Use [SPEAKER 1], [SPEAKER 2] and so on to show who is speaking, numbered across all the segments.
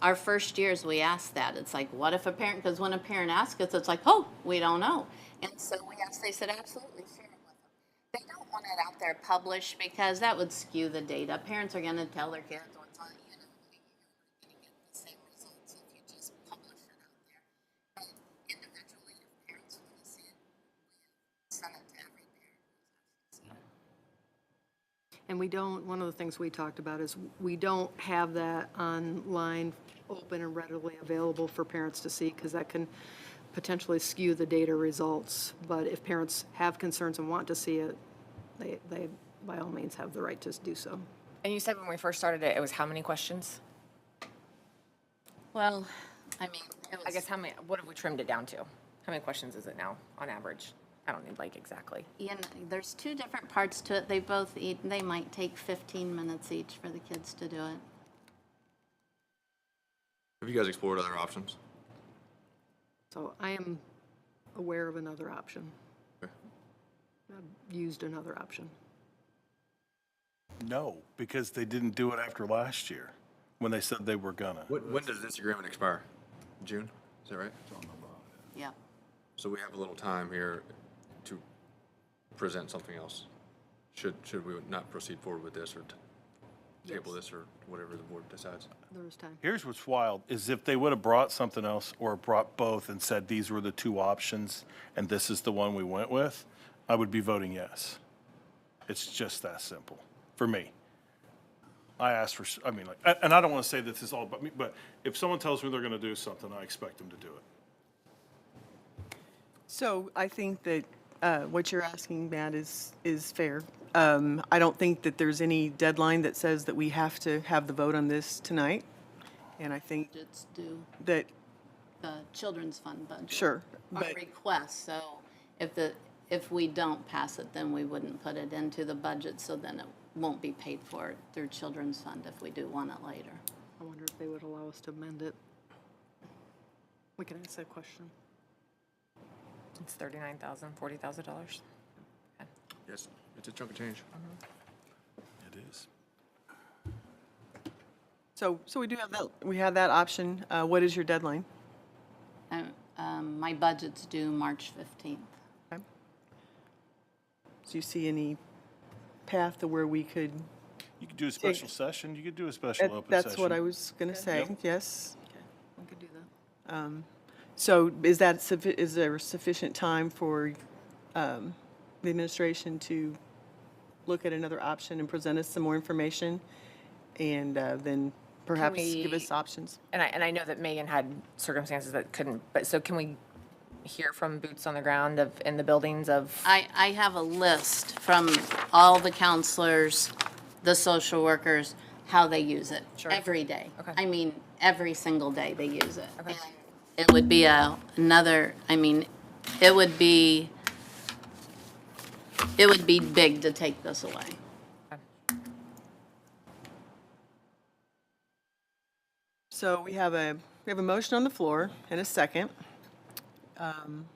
[SPEAKER 1] our first years, we ask that. It's like, what if a parent, because when a parent asks us, it's like, oh, we don't know. And so we asked, they said, absolutely, share it with them. They don't want it out there published because that would skew the data. Parents are going to tell their kids what's on, you know, you're going to get the same results if you just publish it out there. But individually, if parents want to see it, we send it to every parent. who's actually seen it.
[SPEAKER 2] And we don't, one of the things we talked about is we don't have that online, open and readily available for parents to see because that can potentially skew the data results. But if parents have concerns and want to see it, they, they by all means have the right to do so.
[SPEAKER 3] And you said when we first started it, it was how many questions?
[SPEAKER 1] Well, I mean, it
[SPEAKER 3] I
[SPEAKER 1] was-
[SPEAKER 3] guess how many, what have we trimmed it down to? How many questions is it now on average? I don't need like exactly.
[SPEAKER 1] you know, there's two different parts to it. They both eat, they might take 15 minutes each for the kids to do it.
[SPEAKER 4] Have you guys explored other options?
[SPEAKER 2] So I am aware of another option,
[SPEAKER 4] Okay.
[SPEAKER 2] I've used another option.
[SPEAKER 5] No, because they didn't do it after last year, when they said they were gonna.
[SPEAKER 4] When, when does this agreement expire? June, is that right?
[SPEAKER 1] Yeah.
[SPEAKER 4] So we have a little time here to present something else. Should, should we not proceed forward with this or t- table this or whatever the board decides?
[SPEAKER 2] There is time.
[SPEAKER 5] Here's what's wild, is if they would have brought something else or brought both and said these were the two options and this is the one we went with, I would be voting yes. It's just that simple, for me. I asked for, s- I mean, like, a- and I don't want to say this is all about me, but if someone tells me they're going to do something, I expect them to do it.
[SPEAKER 6] So I think that uh, what you're asking, Matt, is, is fair. Um, I don't think that there's any deadline that says that we have to have the vote on this tonight. And I think
[SPEAKER 1] It's due
[SPEAKER 6] that,
[SPEAKER 1] the children's fund budget.
[SPEAKER 6] Sure,
[SPEAKER 1] Our
[SPEAKER 6] but-
[SPEAKER 1] request, so if the, if we don't pass it, then we wouldn't put it into the budget, so then it won't be paid for through children's fund if we do want it later.
[SPEAKER 2] I wonder if they would allow us to amend it. We can ask that question.
[SPEAKER 3] It's thirty-nine thousand, forty thousand dollars.
[SPEAKER 4] Yes, it's a chunk of change.
[SPEAKER 5] It is.
[SPEAKER 6] so, so we do have that, we have that option. Uh, What is your deadline?
[SPEAKER 1] Um, Um, my budget's due March 15th.
[SPEAKER 6] Do you see any path to where we could?
[SPEAKER 5] You could do a special session, you could do a special open session.
[SPEAKER 6] That's what I was going to say,
[SPEAKER 5] Yep.
[SPEAKER 6] yes. Um,
[SPEAKER 2] We could do that.
[SPEAKER 6] So is that, suffi- is there sufficient time for um, the administration to look at another option and present us some more information? And uh, then perhaps give us
[SPEAKER 3] we-
[SPEAKER 6] options?
[SPEAKER 3] And I, and I know that Megan had circumstances that couldn't, but so can we hear from boots on the ground of, in the buildings of?
[SPEAKER 1] I, I have a list from all the counselors, the social workers, how they use it. Every day.
[SPEAKER 3] Okay.
[SPEAKER 1] I mean, every single day they use it. And It would be a, another, I mean, it would be, it would be big to take this away.
[SPEAKER 6] So we have a, we have a motion on the floor and a second. Um,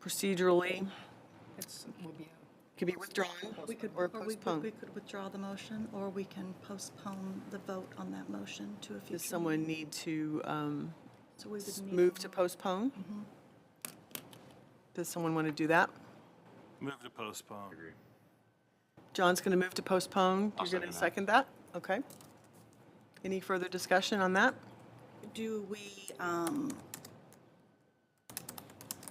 [SPEAKER 6] Procedurally,
[SPEAKER 2] It's, would be a
[SPEAKER 6] could be withdrawn
[SPEAKER 7] We could,
[SPEAKER 6] or
[SPEAKER 7] or we- we we
[SPEAKER 6] postponed.
[SPEAKER 7] could withdraw the motion, or we can postpone the vote on that motion to a future.
[SPEAKER 6] Does someone need to um,
[SPEAKER 7] So we would need
[SPEAKER 6] move to Mm-hmm. postpone? Does someone want to do that?
[SPEAKER 5] Move to postpone.
[SPEAKER 6] John's going to move to postpone.
[SPEAKER 4] I'll
[SPEAKER 6] You're going to
[SPEAKER 4] second
[SPEAKER 6] second that? Okay. Any further discussion on that?
[SPEAKER 7] Do we, um,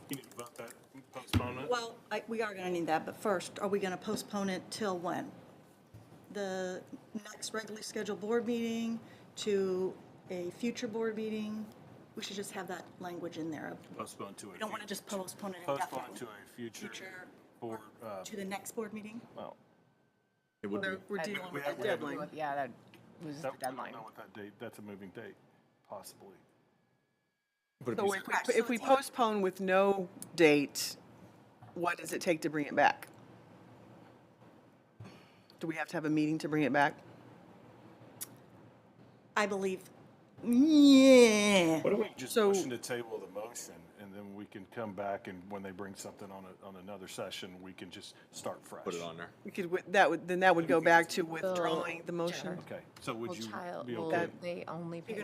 [SPEAKER 5] You need to vote that, postpone it.
[SPEAKER 7] well, I- we are going to need that, but first, are we going to postpone it till when? The next regularly scheduled board meeting to a future board meeting? We should just have that language in there.
[SPEAKER 5] Postpone to a.
[SPEAKER 7] We don't want to
[SPEAKER 5] future-
[SPEAKER 7] just postpone it indefinitely.
[SPEAKER 5] Postpone to a future
[SPEAKER 7] Future
[SPEAKER 5] board, uh,
[SPEAKER 7] To the next board meeting?
[SPEAKER 5] well.
[SPEAKER 4] It would be,
[SPEAKER 6] We're dealing with a deadline.
[SPEAKER 3] Yeah, that was the
[SPEAKER 5] that- I don't
[SPEAKER 3] deadline.
[SPEAKER 5] know what that date, that's a moving date, possibly.
[SPEAKER 4] but it'd
[SPEAKER 6] So
[SPEAKER 4] be,
[SPEAKER 6] if we- if we postpone with no date, what does it take to bring it back? Do we have to have a meeting to bring it back?
[SPEAKER 7] I believe, yeah.
[SPEAKER 5] What if we just
[SPEAKER 6] So-
[SPEAKER 5] motion to table the motion, and then we can come back and when they bring something on a, on another session, we can just start fresh?
[SPEAKER 4] put it on there.
[SPEAKER 6] We could, wi- that would, then that would go back to withdrawing the motion.
[SPEAKER 5] Okay, so would you
[SPEAKER 3] Child,
[SPEAKER 5] be
[SPEAKER 3] will
[SPEAKER 5] okay?
[SPEAKER 3] they only pay